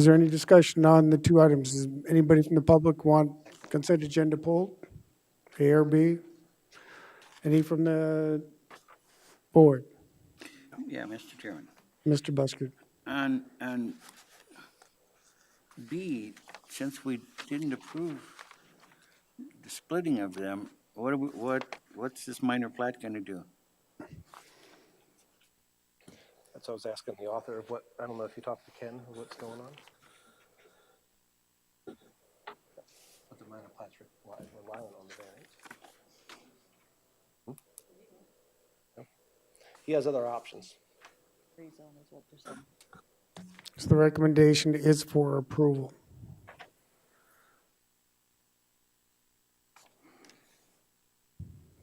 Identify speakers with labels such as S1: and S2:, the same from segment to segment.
S1: Is there any discussion on the two items? Does anybody from the public want consent agenda pulled? A or B? Any from the board?
S2: Yeah, Mr. Chairman.
S1: Mr. Busker?
S2: And, and B, since we didn't approve the splitting of them, what, are we- what, what's this minor plat going to do?
S3: That's what I was asking the author of what, I don't know if you talked to Ken, of what's going on. But the minor plats re- why- relying on the variance. Hmm? No? He has other options.
S4: rezone is what they're saying.
S1: So the recommendation is for approval.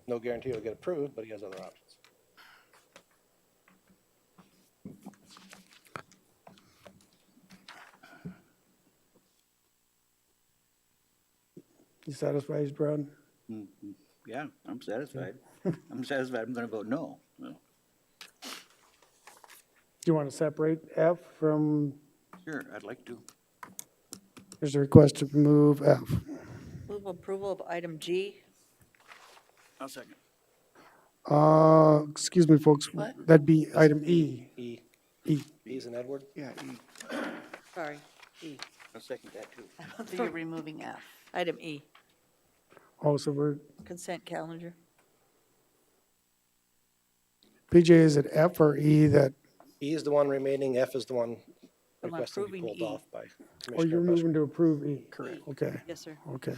S3: No guarantee it'll get approved, but he has other options.
S1: You satisfied, Brown?
S2: Yeah, I'm satisfied. I'm satisfied. I'm going to vote no. Well,
S1: Do you want to separate F from,
S2: Sure, I'd like to.
S1: there's a request to move F.
S4: Move approval of item G.
S2: I'll second.
S1: Uh, excuse me, folks,
S4: What?
S1: that'd be item E.
S3: E,
S1: E.
S3: B's and Edward?
S2: Yeah,
S4: Sorry, E.
S2: I'll second that too.
S5: So you're removing F.
S4: Item E,
S1: Also, Oh, we're,
S4: consent calendar.
S1: PJ, is it F or E that,
S3: E is the one remaining, F is the one
S4: I'm
S3: requesting to be
S4: approving
S3: pulled
S4: E.
S3: off by
S1: or Oh, you're
S3: Commissioner Busker.
S1: moving to approve E? Correct. Okay.
S4: Yes, sir.
S1: Okay.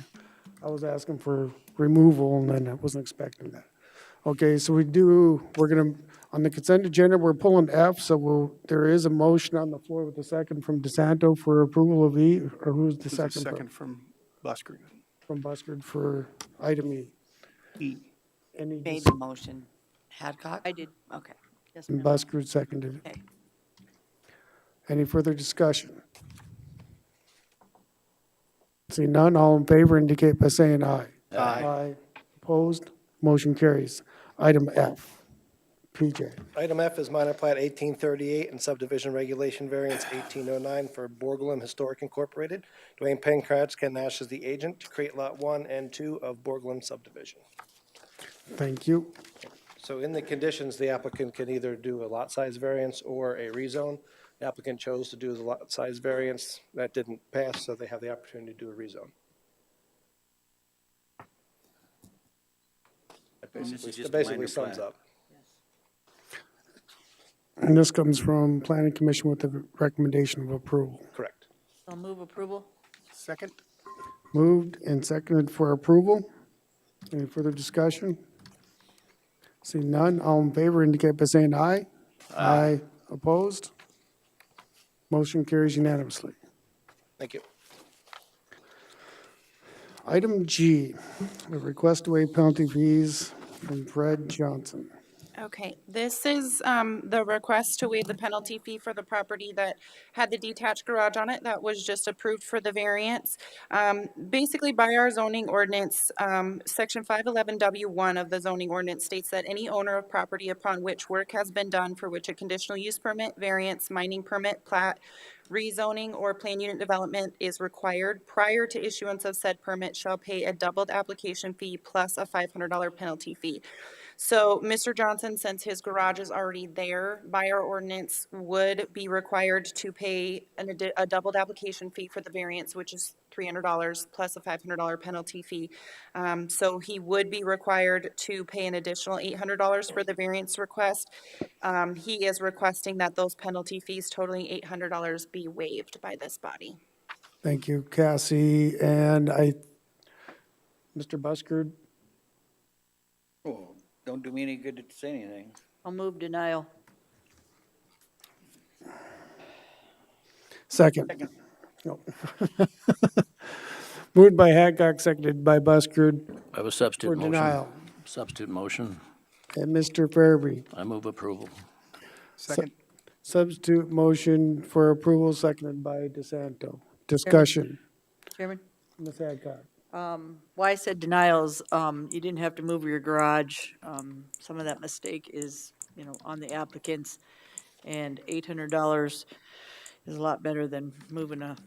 S1: I was asking for removal and then I wasn't expecting that. Okay, so we do, we're gonna, on the consent agenda, we're pulling F, so we'll, there is a motion on the floor with a second from DeSanto for approval of E, or who's the
S6: There's
S1: second?
S6: a
S1: from-
S6: second from Busker.
S1: From Buskard for item E.
S6: E.
S1: Any,
S5: Made
S1: dis-
S5: the motion. Hadcock?
S4: I did,
S5: Okay.
S4: yes,
S1: and
S4: ma'am.
S1: Buskard seconded it.
S5: Okay.
S1: Any further discussion? See none, all in favor indicate by saying aye. Aye. Opposed, motion carries. Item F. PJ.
S3: Item F is minor plat 1838 and subdivision regulation variance 1809 for Borglum Historic Incorporated. Dwayne Pencratz, Ken Nash is the agent to create Lot 1 and 2 of Borglum subdivision.
S1: Thank you.
S3: So in the conditions, the applicant can either do a lot size variance or a rezone. The applicant chose to do the lot size variance. That didn't pass, so they have the opportunity to do a rezone. That
S2: And this is
S3: basically-
S2: just a
S3: That basically
S2: minor
S3: sums
S2: plat.
S3: up.
S1: And this comes from Planning Commission with the recommendation of approval.
S3: Correct.
S4: I'll move approval.
S6: Second?
S1: Moved and seconded for approval. Any further discussion? Seeing none, all in favor indicate by saying aye. Aye. Opposed? Motion carries unanimously.
S3: Thank you.
S1: Item G, the request to waive penalty fees from Fred Johnson.
S7: Okay, this is um, the request to waive the penalty fee for the property that had the detached garage on it that was just approved for the variance. Um, Basically, by our zoning ordinance, um, Section 511W1 of the zoning ordinance states that any owner of property upon which work has been done for which a conditional use permit, variance, mining permit, plat, rezoning, or plan unit development is required prior to issuance of said permit shall pay a doubled application fee plus a $500 penalty fee. So Mr. Johnson, since his garage is already there, by our ordinance, would be required to pay an, addi- a doubled application fee for the variance, which is three hundred dollars plus a five hundred dollar penalty fee. Um, so he would be required to pay an additional eight hundred dollars for the variance request. Um, he is requesting that those penalty fees totaling eight hundred dollars be waived by this body.
S1: Thank you, Cassie, and I, Mr. Buskard,
S2: Oh, Don't do me any good to say anything.
S4: I'll move denial.
S1: second. No. Moved by Hancock, seconded by Buskard
S8: I have
S1: for
S8: a substitute motion.
S1: denial.
S8: Substitute motion.
S1: And Mr. Farabee,
S8: I move approval.
S6: Second?
S1: substitute motion for approval, seconded by DeSanto. Discussion,
S4: Chairman, um,
S1: Ms. Hancock.
S4: why I said denials, um, you didn't have to move your garage. Um, some of that mistake is, you know, on the applicants. And eight hundred dollars is a lot better than moving a